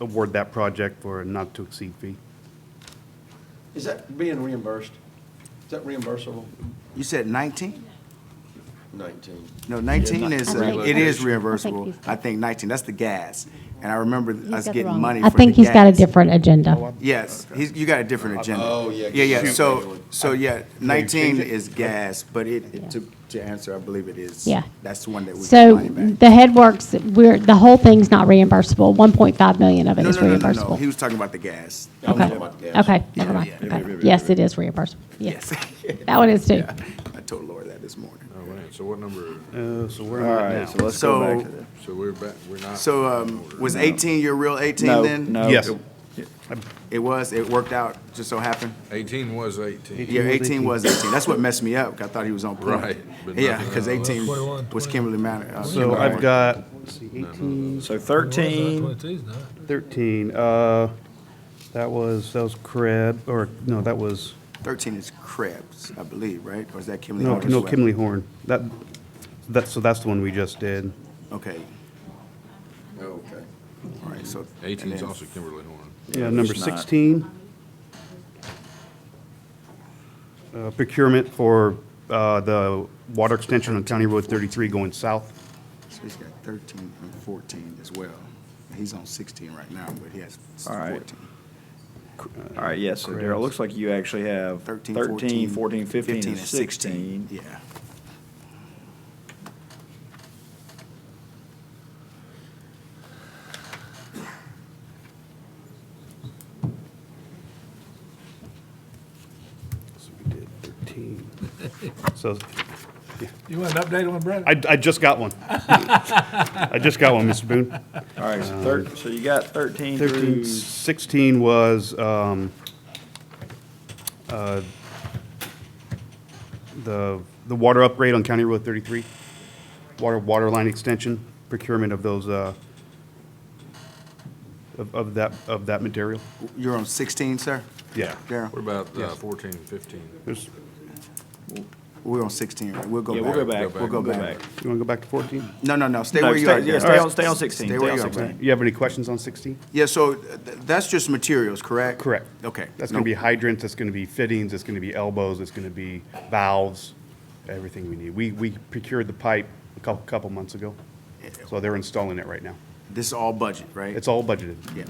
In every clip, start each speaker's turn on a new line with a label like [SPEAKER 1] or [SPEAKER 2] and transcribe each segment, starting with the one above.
[SPEAKER 1] award that project for a not-to-exceed fee.
[SPEAKER 2] Is that being reimbursed? Is that reimbursable?
[SPEAKER 3] You said 19?
[SPEAKER 2] Nineteen.
[SPEAKER 3] No, 19 is, uh,
[SPEAKER 4] I think-
[SPEAKER 3] it is
[SPEAKER 4] I
[SPEAKER 3] reimbursable.
[SPEAKER 4] think he's-
[SPEAKER 3] I think 19, that's the gas. And I remember
[SPEAKER 4] He's
[SPEAKER 3] us
[SPEAKER 4] got the
[SPEAKER 3] getting
[SPEAKER 4] wrong-
[SPEAKER 3] money for
[SPEAKER 4] I
[SPEAKER 3] the gas.
[SPEAKER 4] think he's got a different agenda.
[SPEAKER 3] Yes, he's, you got a different agenda.
[SPEAKER 2] Oh, yeah, 'cause
[SPEAKER 3] Yeah, yeah,
[SPEAKER 2] you-
[SPEAKER 3] so, so, yeah,
[SPEAKER 1] change
[SPEAKER 3] nineteen
[SPEAKER 1] it?
[SPEAKER 3] is gas, but
[SPEAKER 4] Yeah.
[SPEAKER 3] it, to, to answer, I believe it is.
[SPEAKER 4] Yeah.
[SPEAKER 3] That's the one that we get
[SPEAKER 4] So
[SPEAKER 3] money back.
[SPEAKER 4] the head works, we're, the whole thing's not reimbursable. 1.5 million of it
[SPEAKER 3] No,
[SPEAKER 4] is
[SPEAKER 3] no, no, no, no,
[SPEAKER 4] reimbursable.
[SPEAKER 3] he was talking about the gas,
[SPEAKER 2] I'm
[SPEAKER 4] Okay.
[SPEAKER 2] talking about gas.
[SPEAKER 4] Okay, never mind.
[SPEAKER 3] yeah,
[SPEAKER 4] Okay. Yes, it is reimbursable.
[SPEAKER 3] yes.
[SPEAKER 4] Yes, that one is too.
[SPEAKER 3] Yeah, I told Laura that this morning.
[SPEAKER 5] All right, Oh, so what number,
[SPEAKER 1] Uh, So where am I now?
[SPEAKER 3] let's go back to that.
[SPEAKER 5] so we're back, we're not.
[SPEAKER 3] So, um, was eighteen your real eighteen
[SPEAKER 6] No,
[SPEAKER 3] then?
[SPEAKER 6] no.
[SPEAKER 1] Yes.
[SPEAKER 3] It was, it worked out, just so happened.
[SPEAKER 5] Eighteen was eighteen.
[SPEAKER 3] Yeah, eighteen was eighteen, that's what messed me up, 'cause I thought he was on point.
[SPEAKER 5] Right, but
[SPEAKER 3] Yeah,
[SPEAKER 5] nothing
[SPEAKER 3] because
[SPEAKER 5] else.
[SPEAKER 3] eighteen
[SPEAKER 7] 21,
[SPEAKER 3] was
[SPEAKER 7] 21.
[SPEAKER 3] Kimberly Manor. uh,
[SPEAKER 1] So
[SPEAKER 3] Kimberly
[SPEAKER 1] I've
[SPEAKER 3] Manor.
[SPEAKER 1] got, let's see, 18,
[SPEAKER 6] So
[SPEAKER 7] uh,
[SPEAKER 6] 13,
[SPEAKER 1] 13, uh, that was, that was Crab, or, no, that was,
[SPEAKER 3] Thirteen is Krebs, I believe, right? Or is that Kimberly?
[SPEAKER 1] no,
[SPEAKER 3] Horner's
[SPEAKER 1] no,
[SPEAKER 3] way?
[SPEAKER 1] Kimley Horn. That, that's, so that's the one we just did.
[SPEAKER 3] Okay,
[SPEAKER 2] Okay.
[SPEAKER 3] all right, so. and
[SPEAKER 5] Eighteen's
[SPEAKER 3] then-
[SPEAKER 5] also Kimberly Horn.
[SPEAKER 1] Yeah, number
[SPEAKER 6] there's not.
[SPEAKER 1] 16. Uh, Procurement for uh, the water extension on County Road 33 going south.
[SPEAKER 3] So he's got thirteen and fourteen as well. He's on sixteen right now, but he has
[SPEAKER 6] All right.
[SPEAKER 3] fourteen.
[SPEAKER 6] all right, yes, so Daryl, it looks like you actually have
[SPEAKER 3] 13,
[SPEAKER 6] 13, 14, 15, and 16.
[SPEAKER 3] Yeah.
[SPEAKER 1] So we did 13. So
[SPEAKER 7] You want an update on Brandon?
[SPEAKER 1] I, I just got one. I just got one, Mr. Boone.
[SPEAKER 6] All right, so thir- so you got 13
[SPEAKER 1] 13,
[SPEAKER 6] through,
[SPEAKER 1] 16 was um, uh, the, the water upgrade on County Road 33, water, water line extension, procurement of those, uh, of of that, of that material.
[SPEAKER 3] You're on sixteen, sir?
[SPEAKER 1] Yeah.
[SPEAKER 5] What
[SPEAKER 3] Daryl,
[SPEAKER 5] about uh,
[SPEAKER 1] Yes.
[SPEAKER 5] fourteen, fifteen?
[SPEAKER 1] There's-
[SPEAKER 3] we're on sixteen, right? We'll go
[SPEAKER 6] yeah,
[SPEAKER 3] back.
[SPEAKER 6] we'll go back,
[SPEAKER 5] Go
[SPEAKER 6] we'll go
[SPEAKER 3] back.
[SPEAKER 6] back.
[SPEAKER 1] You want to go back to 14?
[SPEAKER 3] No, no, no, stay
[SPEAKER 6] No,
[SPEAKER 3] where you
[SPEAKER 6] stay-
[SPEAKER 3] are.
[SPEAKER 6] yeah,
[SPEAKER 3] Daryl.
[SPEAKER 6] stay on- stay on 16,
[SPEAKER 3] Stay
[SPEAKER 6] stay
[SPEAKER 3] where
[SPEAKER 6] on
[SPEAKER 3] you are,
[SPEAKER 6] 16.
[SPEAKER 3] Brandon.
[SPEAKER 1] You have any questions on 16?
[SPEAKER 3] Yeah, so uh, th- that's just materials, correct?
[SPEAKER 1] Correct.
[SPEAKER 3] Okay.
[SPEAKER 1] That's
[SPEAKER 3] No-
[SPEAKER 1] going to be hydrants, that's going to be fittings, it's going to be elbows, it's going to be valves, everything we need. We, we procured the pipe a couple, couple months ago, so they're installing it right now.
[SPEAKER 3] This is all budget, right?
[SPEAKER 1] It's all budgeted.
[SPEAKER 3] Yeah.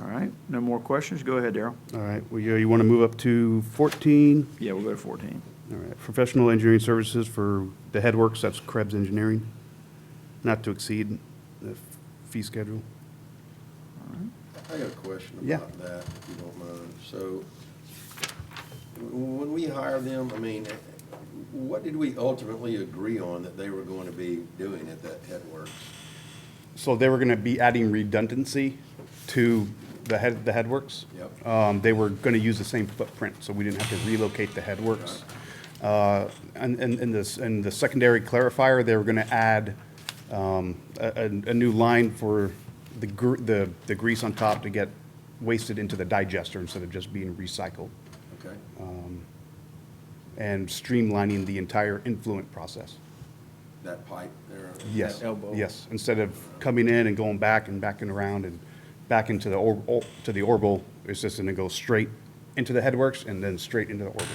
[SPEAKER 6] All right, no more questions, go ahead, Daryl.
[SPEAKER 1] All right, well, you, you want to move up to 14?
[SPEAKER 6] Yeah, we'll go to 14.
[SPEAKER 1] All right, professional engineering services for the headworks, that's Krebs Engineering, not to exceed the fee schedule.
[SPEAKER 2] I got a question
[SPEAKER 1] Yeah.
[SPEAKER 2] about that, if you don't mind. So, w- when we hire them, I mean, eh, what did we ultimately agree on that they were going to be doing at that headworks?
[SPEAKER 1] So they were going to be adding redundancy to the head, the headworks.
[SPEAKER 2] Yep.
[SPEAKER 1] Um, They were going to use the same footprint, so we didn't have to relocate the headworks. Uh, And, and, and this, and the secondary clarifier, they were going to add um, a, a a new line for the gr- the, the grease on top to get wasted into the digester instead of just being recycled,
[SPEAKER 2] Okay?
[SPEAKER 1] and streamlining the entire influent process.
[SPEAKER 2] That pipe there?
[SPEAKER 1] Yes.
[SPEAKER 2] that elbow?
[SPEAKER 1] Yes, instead of coming in and going back and backing around and back into the, or- or- to the orbital, it's just gonna go straight into the headworks and then straight into the orbital.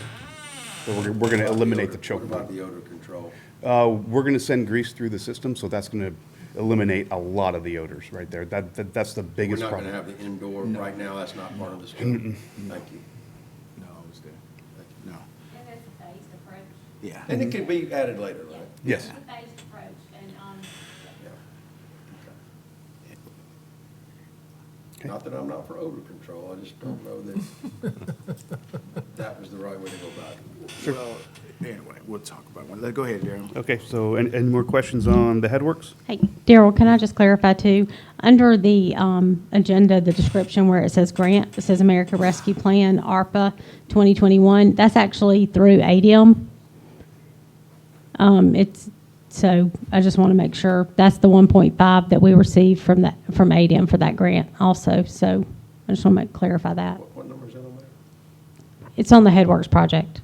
[SPEAKER 1] So we're, we're gonna
[SPEAKER 2] What about the
[SPEAKER 1] eliminate
[SPEAKER 2] odor-
[SPEAKER 1] the choke
[SPEAKER 2] What about
[SPEAKER 1] point.
[SPEAKER 2] the odor control?
[SPEAKER 1] Uh, we're gonna send grease through the system, so that's gonna eliminate a lot of the odors right there. That, that, that's the
[SPEAKER 2] We're
[SPEAKER 1] biggest
[SPEAKER 2] not
[SPEAKER 1] problem.
[SPEAKER 2] going to have the indoor, right now, that's not part of the scope. Thank you.
[SPEAKER 3] No, I was there.
[SPEAKER 8] And
[SPEAKER 3] No,
[SPEAKER 8] that's a phased approach.
[SPEAKER 3] yeah.
[SPEAKER 2] And it could be added later, right?
[SPEAKER 1] Yes.
[SPEAKER 8] It's a phased approach, and, um,
[SPEAKER 2] Yeah. Okay. Not that I'm not for odor control, I just don't know that that was the right way to go about it.
[SPEAKER 3] Well, anyway, we'll talk about one. Let, go ahead, Daryl.
[SPEAKER 1] Okay, so any, any more questions on the headworks?
[SPEAKER 4] Hey, Daryl, can I just clarify too? Under the um, agenda, the description where it says grant, it says America Rescue Plan, ARPA 2021, that's actually through ADM. Um, It's, so I just want to make sure, that's the 1.5 that we received from that, from ADM for that grant also. So I just want to clarify that.
[SPEAKER 2] What, what number is that on there?
[SPEAKER 4] It's on the Headworks project.